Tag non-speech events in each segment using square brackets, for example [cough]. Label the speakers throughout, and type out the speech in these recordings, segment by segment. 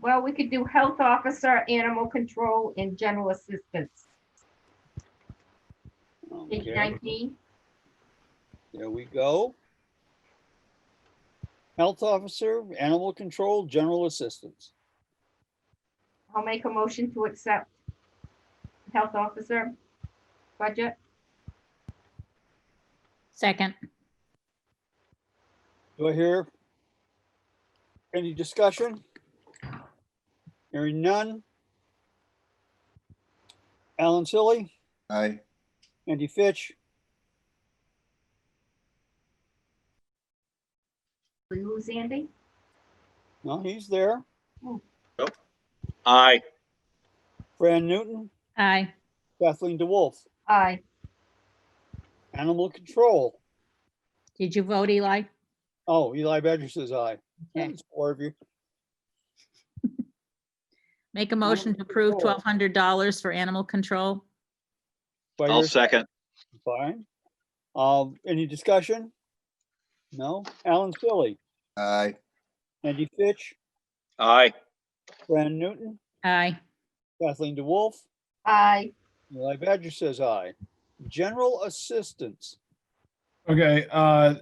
Speaker 1: Well, we could do health officer, animal control, and general assistance. Page
Speaker 2: Okay,
Speaker 1: nineteen,
Speaker 2: Oh, there we go. Health officer, animal control, general assistance.
Speaker 1: I'll make a motion to accept health officer budget.
Speaker 3: Second,
Speaker 2: Do I hear any discussion? Hearing none. Alan Silly,
Speaker 4: Aye.
Speaker 2: Andy Fitch,
Speaker 1: We lose Andy?
Speaker 2: no, he's there.
Speaker 5: Aye.
Speaker 2: Fran Newton,
Speaker 3: aye.
Speaker 2: Kathleen DeWolf,
Speaker 1: Aye.
Speaker 2: animal control.
Speaker 3: Did you vote, Eli?
Speaker 2: Oh, Eli Badger says aye.
Speaker 3: Okay.
Speaker 2: It's Four of you.
Speaker 3: Make a motion to approve
Speaker 2: control.
Speaker 3: twelve hundred dollars for animal control.
Speaker 2: Do I
Speaker 5: I'll
Speaker 2: hear-
Speaker 5: second.
Speaker 2: Fine. Um, any discussion? No? Alan Silly,
Speaker 4: Aye.
Speaker 2: Andy Fitch,
Speaker 5: Aye.
Speaker 2: Fran Newton,
Speaker 3: Aye.
Speaker 2: Kathleen DeWolf,
Speaker 1: Aye.
Speaker 2: Eli Badger says aye. General assistance.
Speaker 6: Okay, uh,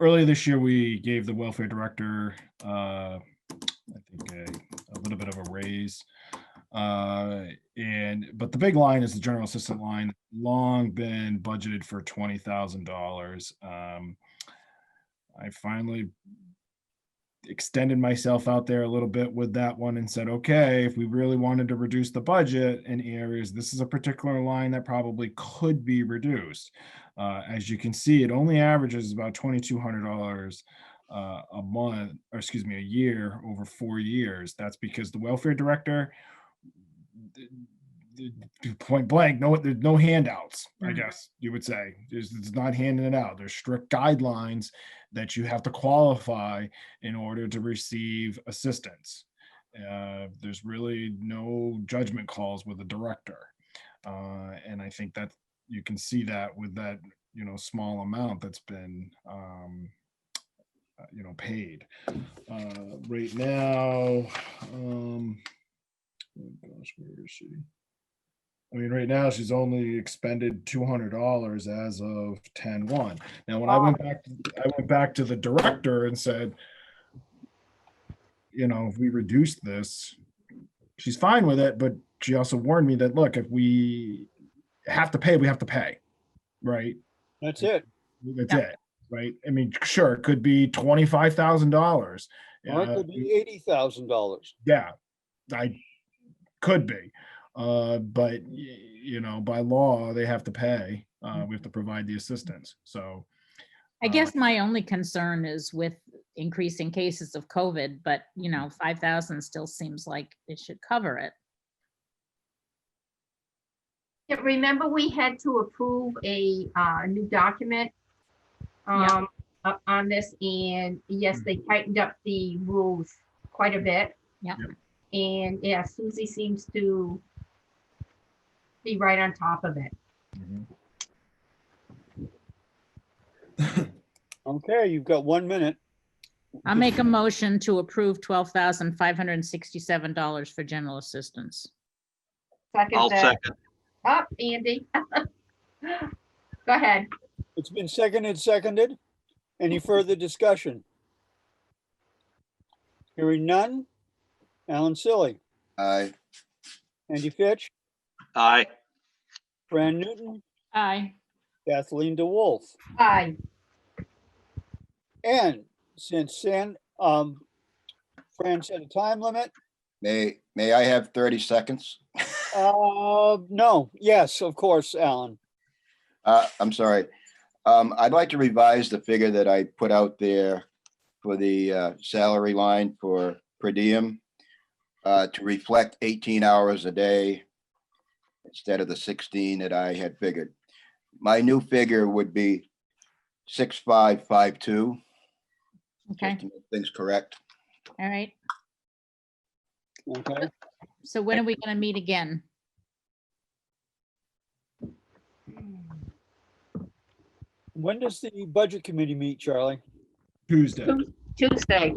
Speaker 6: earlier this year, we gave the welfare director, uh, I think a, a little bit of a raise. Uh, and, but the big line is the general assistant line, long been budgeted for twenty thousand dollars. Um, I finally extended myself out there a little bit with that one and said, okay, if we really wanted to reduce the budget in areas, this is a particular line that probably could be reduced. Uh, as you can see, it only averages about twenty-two hundred dollars uh, a month, or excuse me, a year over four years. That's because the welfare director, th- th- th- point blank, no, there's no handouts. I
Speaker 3: Mhm.
Speaker 6: guess you would say there's it's not handing it out. There's strict guidelines that you have to qualify in order to receive assistance. Uh, there's really no judgment calls with a director. Uh, and I think that you can see that with that you know small amount that's been um uh, you know paid uh right now um oh gosh where is she i mean right now she's only expended $200 as of 10 1 now when i went back to, i went back to the director and said you know if we reduce this she's fine with it but she also warned me that look if we have to pay, we have to pay, right?
Speaker 2: That's it.
Speaker 6: That's
Speaker 3: Yeah.
Speaker 6: it, right? I mean, sure, it could be twenty-five thousand dollars. Uh,
Speaker 2: Or it could be eighty thousand dollars.
Speaker 6: Yeah, I could be, uh, but y- you know, by law, they have to pay. Uh, we have to provide the assistance. So
Speaker 3: I
Speaker 6: Uh,
Speaker 3: guess my only concern is with increasing cases of COVID, but you know, five thousand still seems like it should cover it.
Speaker 1: Yeah, Remember, we had to approve a uh, new document
Speaker 3: Yeah.
Speaker 1: um, o- on this, and yes, they tightened up the rules quite a bit.
Speaker 3: Yeah.
Speaker 1: And yeah, Susie seems to be right on top of it.
Speaker 2: Okay, you've got one minute.
Speaker 3: I'll make a motion to approve twelve thousand five hundred and sixty-seven dollars for general assistance.
Speaker 1: Second
Speaker 5: I'll
Speaker 1: that.
Speaker 5: second.
Speaker 1: Up, Andy. [laughs] Go ahead.
Speaker 2: It's been seconded, seconded. Any further discussion? Hearing none. Alan Silly,
Speaker 4: Aye.
Speaker 2: Andy Fitch,
Speaker 5: Aye.
Speaker 2: Fran Newton,
Speaker 3: Aye.
Speaker 2: Kathleen DeWolf.
Speaker 1: Aye.
Speaker 2: And since San, um, Fran set a time limit,
Speaker 4: May, may I have 30 seconds?
Speaker 2: uh, no, yes, of course, Alan.
Speaker 4: Uh, I'm sorry. Um, I'd like to revise the figure that I put out there for the uh, salary line for per diem uh, to reflect 18 hours a day instead of the 16 that I had figured. My new figure would be 6552.
Speaker 3: Okay,
Speaker 4: just to make Things correct.
Speaker 3: all right.
Speaker 2: Okay,
Speaker 3: So when are we gonna meet again?
Speaker 2: when does the budget committee meet, Charlie?
Speaker 6: Tuesday.
Speaker 1: Tuesday.